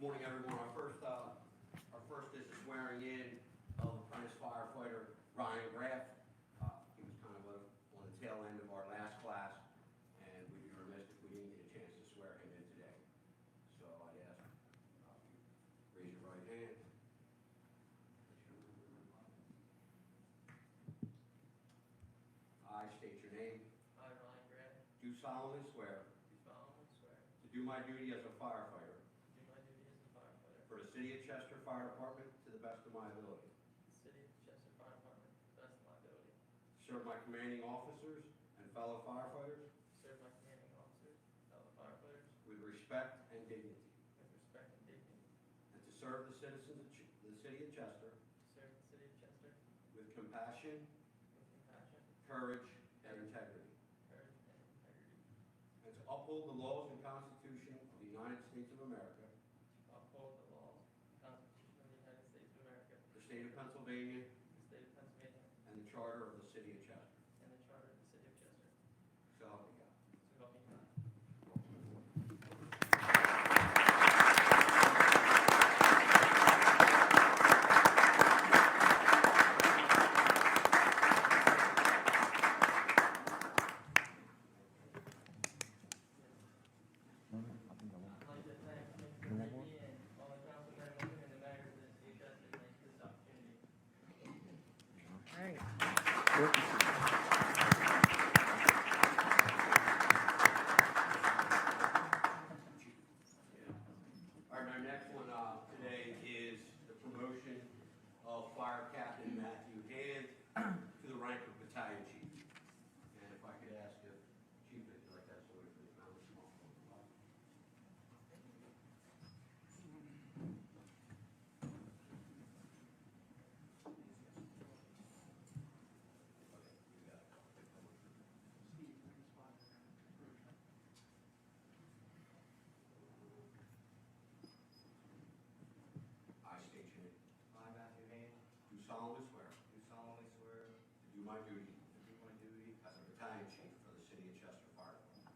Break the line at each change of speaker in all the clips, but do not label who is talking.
Morning, everyone. Our first, uh, our first is the swearing in of apprentice firefighter Ryan Graff. Uh, He was kind of uh, on the tail end of our last class, and we'd be remiss if we didn't get a chance to swear him in today. So I'd ask, uh, you raise your right hand. I state your name.
I, Ryan Grant,
Do solemnly swear
do solemnly swear
to do my duty as a firefighter
to do my duty as a firefighter
For the City of Chester Fire Department, to the best of my ability.
for the City of Chester Fire Department to the best of my ability,
Serve my commanding officers and fellow firefighters
serve my commanding officers, fellow firefighters
with respect and dignity.
with respect and dignity,
And to serve the citizens of Ch- the City of Chester
serve the City of Chester
with compassion,
with compassion,
courage, and integrity.
courage, and integrity,
And to uphold the laws and Constitution of the United States of America,
to uphold the laws, and Constitution of the United States of America,
the state of Pennsylvania,
the State of Pennsylvania,
and the charter of the City of Chester.
and the Charter of the City of Chester,
So help me God.
so help me God. I'd like to thank Mr. Rigby and all the councilmen and the mayor of the city of Chester, thank you for this opportunity.
All right, my next one uh, today is the promotion of Fire Captain Matthew Hand to the rank of Battalion Chief. And if I could ask if Chief, if you'd like that sort of thing, I would small. Okay, you got it. I state your name.
I, Matthew Haynes,
Do solemnly swear
do solemnly swear
to do my duty
to do my duty
as a Battalion Chief for the City of Chester Fire Department.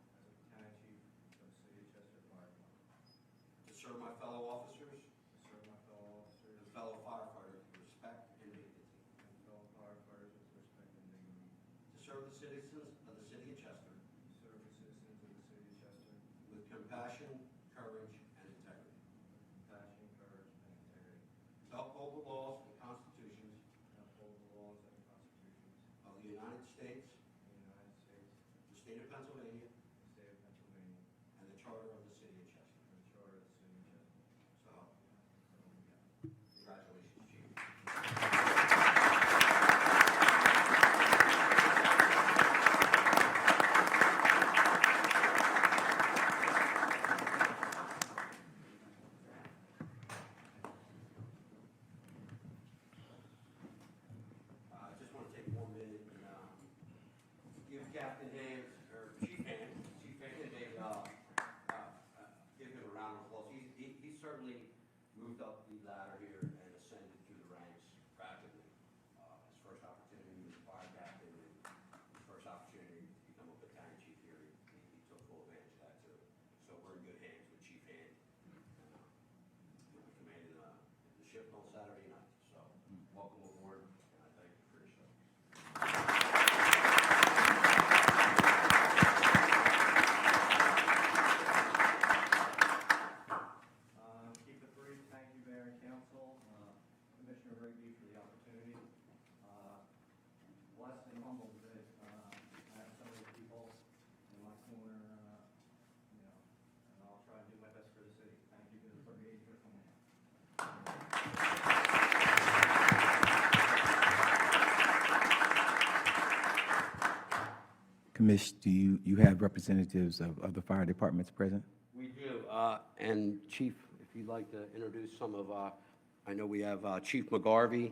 as a battalion chief of the city of Chester Fire Department,
To serve my fellow officers
to serve my fellow officers
and fellow firefighters with respect and dignity.
and fellow firefighters with respect and dignity,
To serve the citizens of the city of Chester
to serve the citizens of the city of Chester with
with compassion, courage, and integrity.
compassion, courage, and integrity,
To uphold the laws and constitutions
and uphold the laws and constitutions
of the United States,
of the United States,
the state of Pennsylvania,
the state of Pennsylvania,
and the charter of the city of Chester.
and the charter of the city of
So,
Chester.
help me God. congratulations, Chief. Uh, I just want to take one minute and um, give Captain Haynes, or Chief Haynes, Chief Haynes, a, uh, uh, uh, give him a round of applause. He's- He he certainly moved up the ladder here and ascended through the ranks rapidly. Uh, His first opportunity was fire captain, and his first opportunity to become a battalion chief here, he he took full advantage of that too. So we're in good hands with Chief Haynes. And, uh, He'll be commanding uh, the ship on Saturday night, so welcome aboard, and I thank you for your service.
Um, Keep it brief, thank you, Mayor and Council, uh, Commissioner Rigby for the opportunity. Uh, Blessed and humbled that uh, I have so many people in my corner, uh, you know, and I'll try and do my best for the city. Thank you to the 38 for coming out.
Commish, do you, you have representatives of, of the fire departments present?
We do, uh, and Chief, if you'd like to introduce some of, uh, I know we have uh, Chief McGarvey,